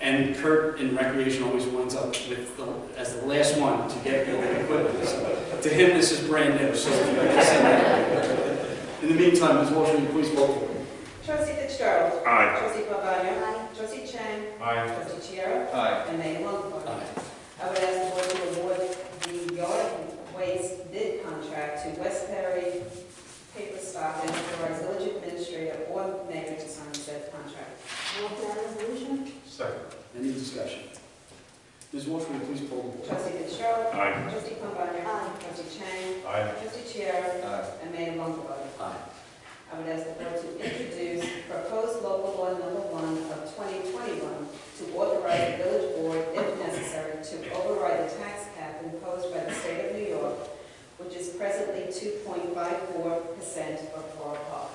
And Kurt in recreation always winds up with, the- as the last one to get building equipment. So To him, this is brand new, so if you can send that. In the meantime, Ms. Walsh, will you please vote? Trustee Fitzgerald. Aye. Trustee Pabana. Trustee Chang. Aye. Trustee Chiara. Aye. And Mayor Longfellow. I would ask the board to award the yard waste bid contract to West Perry Paper Stock and authorize village administrator or mayor to sign said contract. Move that resolution? Second. Any discussion? Ms. Walsh, will you please poll the board? Trustee Fitzgerald. Aye. Trustee Pabana. Aye. Trustee Chang. Aye. Trustee Chiara. Aye. And Mayor Longfellow. Aye. I would ask the board to introduce proposed local law number one of 2021 to authorize the village board, if necessary, to override the tax cap imposed by the state of New York, which is presently 2.54% of Flore Park.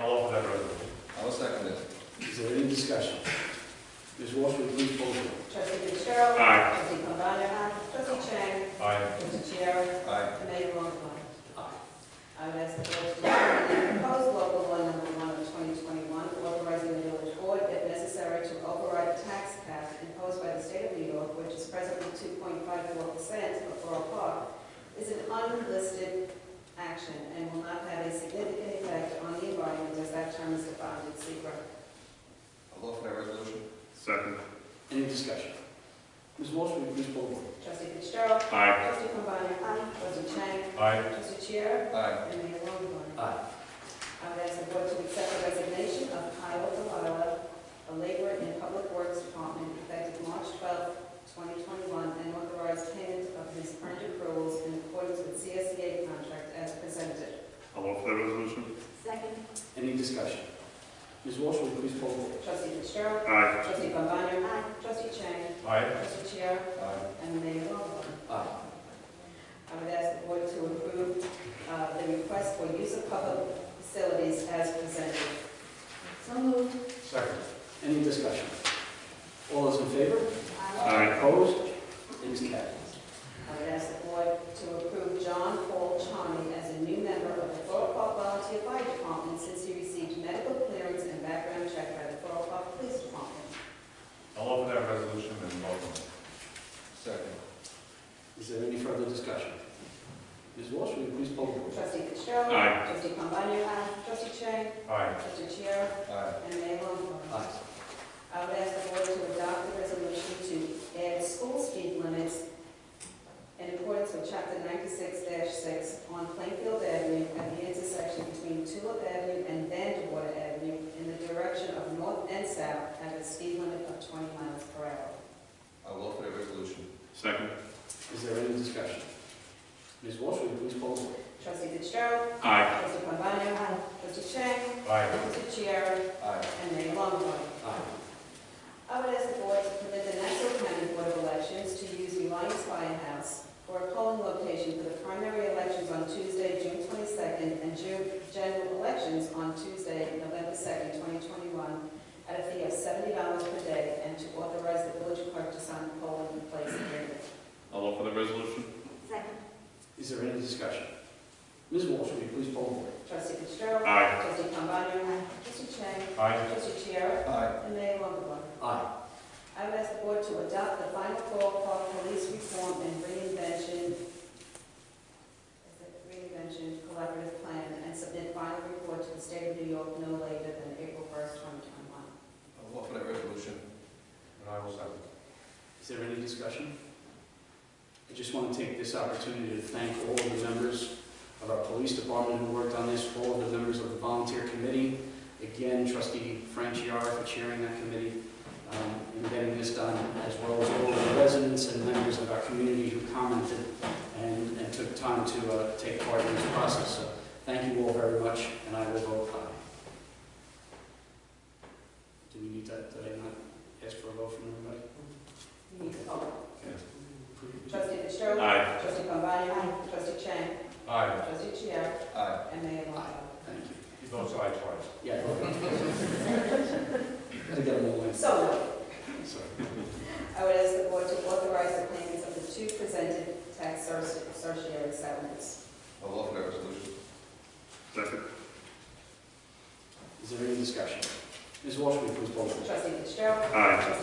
I'll offer that resolution. I'll second it. Is there any discussion? Ms. Walsh, will you please poll the board? Trustee Fitzgerald. Aye. Trustee Pambana. Trustee Chang. Aye. Trustee Chiara. Aye. And Mayor Longfellow. Aye. I would ask the board to recommend the proposed local law number one of 2021, authorizing the village board, if necessary, to override the tax cap imposed by the state of New York, which is presently 2.54% of Borough Park, is an unlisted action and will not have a significant effect on the environment as that term is defined in secret. I'll offer that resolution. Second. Any discussion? Ms. Walsh, will you please poll the board? Trustee Fitzgerald. Aye. Trustee Cambani. Trustee Chang. Aye. Trustee Chair. Aye. And Mayor Longfellow. Aye. I would ask the board to accept the resignation of Kyle Delila, a laborer in Public Works Department, effective March 12, 2021, and authorize payment of his earned accruals in accordance with CSEA contract as presented. I'll offer that resolution. Second? Any discussion? Ms. Walsh, will you please poll the board? Trustee Fitzgerald. Aye. Trustee Pambana. Trustee Chang. Aye. Trustee Chiara. Aye. And Mayor Longfellow. Aye. I would ask the board to approve uh, the request for use of public facilities as presented. So moved. Second. Any discussion? All those in favor? Aye. Opposed? It is carried. I would ask the board to approve John Paul Charney as a new member of the Borough Park Volunteer Fire Department since he received medical clearance and background check by the Borough Park Police Department. I'll offer that resolution and welcome. Second. Is there any further discussion? Ms. Walsh, will you please poll the board? Trustee Fitzgerald. Aye. Trustee Pombana. Trustee Chang. Aye. Trustee Chiara. Aye. And Mayor Longfellow. Aye. I would ask the board to adopt the resolution to add school speed limits in accordance with chapter ninety-six six on Plainfield Avenue at the intersection between Tulip Avenue and Vandewater Avenue in the direction of north and south at a speed limit of twenty miles per hour. I'll offer that resolution. Second. Is there any discussion? Ms. Walsh, will you please poll the board? Trustee Fitzgerald. Aye. Trustee Pambana. Trustee Chang. Aye. Trustee Chiara. Aye. And Mayor Longfellow. Aye. I would ask the board to permit the Nassau County Board of Elections to use Reliance Firehouse for a polling location for the primary elections on Tuesday, June 22nd, and June general elections on Tuesday, November 2nd, 2021, at a fee of $70 per day, and to authorize the village clerk to sign the polling place agreement. I'll offer that resolution. Second? Is there any discussion? Ms. Walsh, will you please poll the board? Trustee Fitzgerald. Aye. Trustee Cambani. Trustee Chang. Aye. Trustee Chiara. Aye. And Mayor Longfellow. Aye. I would ask the board to adopt the final call for police reform and reinvention, is it reinvention collaborative plan, and submit final report to the state of New York no later than April 1st, 2021. I'll offer that resolution. And I will second. Is there any discussion? I just want to take this opportunity to thank all of the members of our police department who worked on this, all of the members of the volunteer committee. Again, trustee Franchiara for chairing that committee um, and getting this done, as well as all of the residents and members of our community who commented and, and took time to uh, take part in this process. So thank you all very much, and I will vote aye. Do we need that, did I not ask for a vote from everybody? You need to vote. Trustee- Trustee Fitzgerald. Aye. Trustee Pombana. Trustee Chang. Aye. Trustee Chair. Aye. And Mayor Longfellow. Thank you. You don't say aye twice. Yeah. Gotta get them all in, So moved. sorry. I would ask the board to authorize the payments of the two presented tax certi- certiorari settlements. I'll offer that resolution. Second. Is there any discussion? Ms. Walsh, will you please poll the board? Trustee Fitzgerald. Aye. Trustee